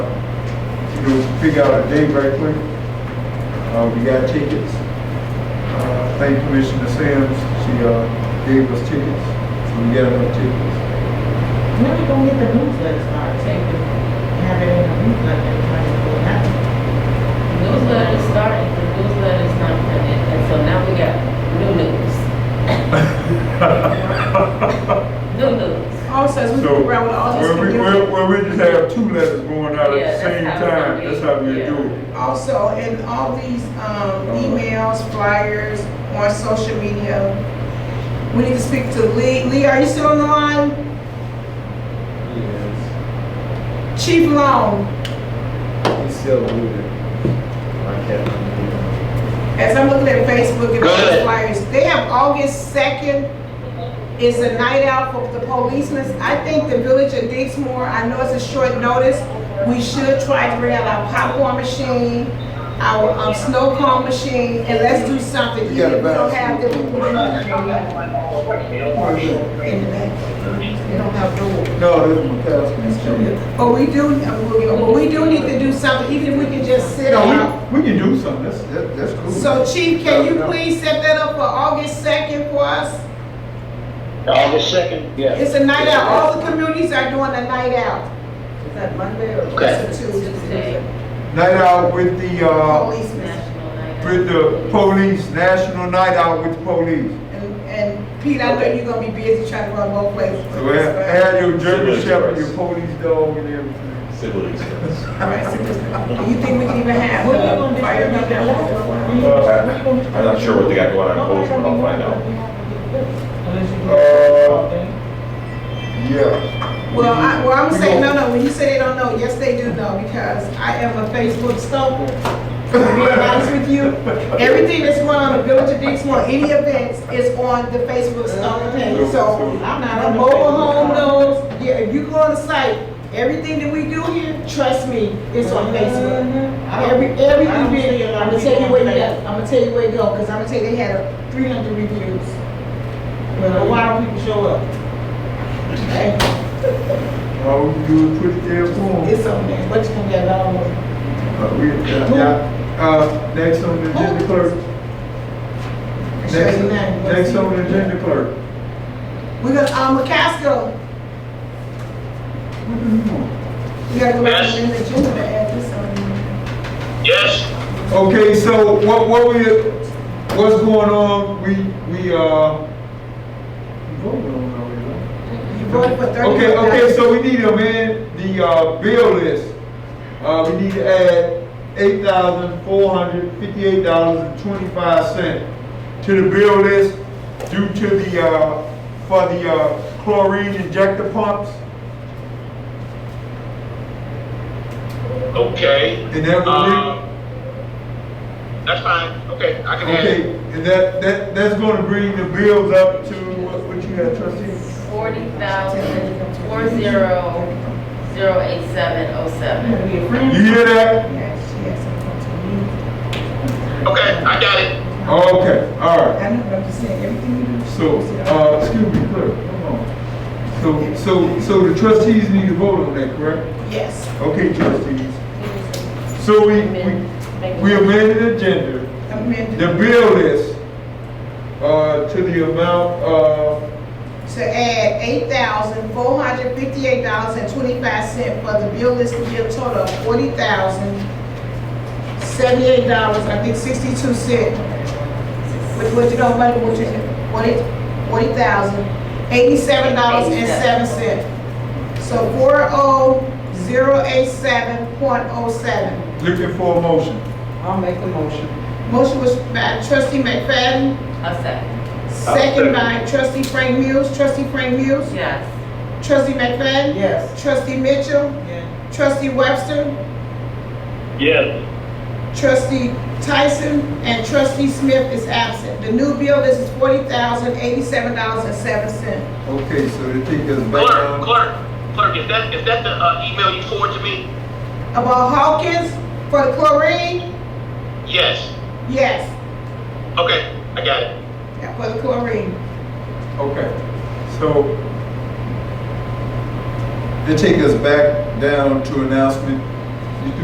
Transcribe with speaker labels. Speaker 1: you know, figure out a day right quick. Uh, we got tickets. Uh, thank Commissioner Sims, she, uh, gave us tickets, so we got enough tickets.
Speaker 2: When we gonna get the newsletter started, take it, have it in the newsletter, everybody pull it out.
Speaker 3: Newsletter is starting, the newsletter is not printed, and so now we got new news. New news.
Speaker 4: Also, as we
Speaker 1: So,
Speaker 4: go around with all this
Speaker 1: well, we, well,
Speaker 4: community,
Speaker 1: well, we just have two letters going out
Speaker 3: Yeah,
Speaker 1: at the
Speaker 3: that's
Speaker 1: same
Speaker 3: how it's gonna
Speaker 1: time,
Speaker 3: be.
Speaker 1: that's how we
Speaker 3: Yeah.
Speaker 1: do it.
Speaker 4: also in all these, um,
Speaker 1: Uh-huh.
Speaker 4: emails, flyers, on social media. We need to speak to Lee. Lee, are you still on the line?
Speaker 5: Yes,
Speaker 4: Chief Long,
Speaker 5: he's still muted. I can't unmute him.
Speaker 4: as I'm looking at Facebook and all these
Speaker 6: Good.
Speaker 4: flyers, they have August second is a night out for the policemen. I think the village of Dixmoor, I know it's a short notice, we should try to bring out our popcorn machine, our, um, snow cone machine, and let's do something.
Speaker 1: You got a
Speaker 4: Even if We don't
Speaker 1: basket.
Speaker 4: have the people in the back. They don't have doors.
Speaker 1: No, this is McCaskey.
Speaker 4: But we do, but we do need to do something, even if we can just sit out.
Speaker 1: No, we, we can do something, that's, that- that's cool.
Speaker 4: So Chief, can you please set that up for August second for us?
Speaker 6: August second, yeah.
Speaker 4: It's a night out, all the communities are doing a night out. Is that Monday or
Speaker 6: Okay.
Speaker 4: is it Tuesday?
Speaker 1: Night out with the, uh,
Speaker 4: Policemen,
Speaker 3: National Night Out.
Speaker 1: with the police, national night out with the police.
Speaker 4: and, and Pete, I know you're gonna be busy trying to run both places.
Speaker 1: So have, have your German
Speaker 7: Civilized
Speaker 1: shepherd, your
Speaker 7: rights.
Speaker 1: police dog and everything.
Speaker 7: Civil expense.
Speaker 4: Alright, so this- Do you think we can even have?
Speaker 2: What you gonna do?
Speaker 4: fire up that wall?
Speaker 7: Uh, I'm not sure what they got going on in Bozeman, I'll find out.
Speaker 4: Uh,
Speaker 1: Yeah.
Speaker 4: Well, I, well, I'm
Speaker 1: We
Speaker 4: saying, no,
Speaker 1: gon-
Speaker 4: no, when you say they don't know, yes, they do know, because I am a Facebook stalker. To be honest with you, everything that's going on in the Village of Dixmoor, any events is on the Facebook stalker page, so I'm not a mobile home loans. Yeah, if you go on the site, everything that we do here, trust me, it's on Facebook. Mm-hmm. Every, every event, I'm gonna tell you where you at, I'm gonna tell you where to go, because I'm gonna tell you they had a three hundred reviews. Well, why don't people show up? Okay.
Speaker 1: All Oh, we do is put it there for them.
Speaker 4: It's on there, but you can get it all over.
Speaker 1: Uh, we, uh, yeah. Uh, next on the agenda clerk. Next, next on the agenda clerk.
Speaker 4: We're gonna, um, McCaskill,
Speaker 1: What do you want?
Speaker 4: we gotta go back to the agenda to add this on.
Speaker 6: Yes.
Speaker 1: Okay, so what, what we, what's going on, we, we, uh. voted on already, right?
Speaker 4: You voted for thirty.
Speaker 1: Okay, okay, so we need to amend the, uh, bill list. Uh, we need to add eight thousand four hundred fifty-eight dollars and twenty-five cent to the bill list due to the, uh, for the, uh, chlorine injector pumps.
Speaker 6: Okay.
Speaker 1: And that will be-
Speaker 6: Uh, That's fine, okay, I can add it.
Speaker 1: Okay, and that, that, that's gonna bring the bills up to, what, what you had, trustee?
Speaker 3: Forty thousand, four zero, zero eight seven oh seven.
Speaker 4: Be a friend.
Speaker 1: You hear that?
Speaker 4: Yes, yes, I'm going to
Speaker 6: Okay, I got it.
Speaker 1: Okay, all right.
Speaker 4: leave. I know, but I'm just saying, everything we do.
Speaker 1: So, uh, excuse me, clerk, come on. So, so, so the trustees need to vote on that, correct?
Speaker 4: Yes.
Speaker 1: Okay, trustees. So we, we, we amended the agenda,
Speaker 4: Amended,
Speaker 1: the bill list, uh, to the amount, uh,
Speaker 4: to add eight thousand, four hundred fifty-eight dollars and twenty-five cent for the bill list to be a total of forty thousand, seventy-eight dollars, I think sixty-two cent. Which was, you know, money, which is forty, forty thousand, eighty-seven dollars and seven cent. So four oh zero eight seven point oh seven.
Speaker 1: looking for a motion.
Speaker 4: Motion was by trustee McFadden,
Speaker 3: A second,
Speaker 4: second by trustee Frank Muse, trustee Frank Muse,
Speaker 3: yes.
Speaker 4: trustee McFadden.
Speaker 2: Yes.
Speaker 4: Trustee Mitchell. Trustee Webster.
Speaker 6: Yes.
Speaker 4: Trustee Tyson. And Trustee Smith is absent. The new bill is forty thousand eighty-seven dollars and seven cents.
Speaker 1: Okay, so they take us back
Speaker 6: Clerk,
Speaker 1: down.
Speaker 6: clerk, clerk, is that, is that the, uh, email you forwarded to me?
Speaker 4: About Hawkins for the chlorine?
Speaker 6: Yes.
Speaker 4: Yes,
Speaker 6: Okay, I got it.
Speaker 4: yeah, for the chlorine.
Speaker 1: Okay, so they take us back down to announcement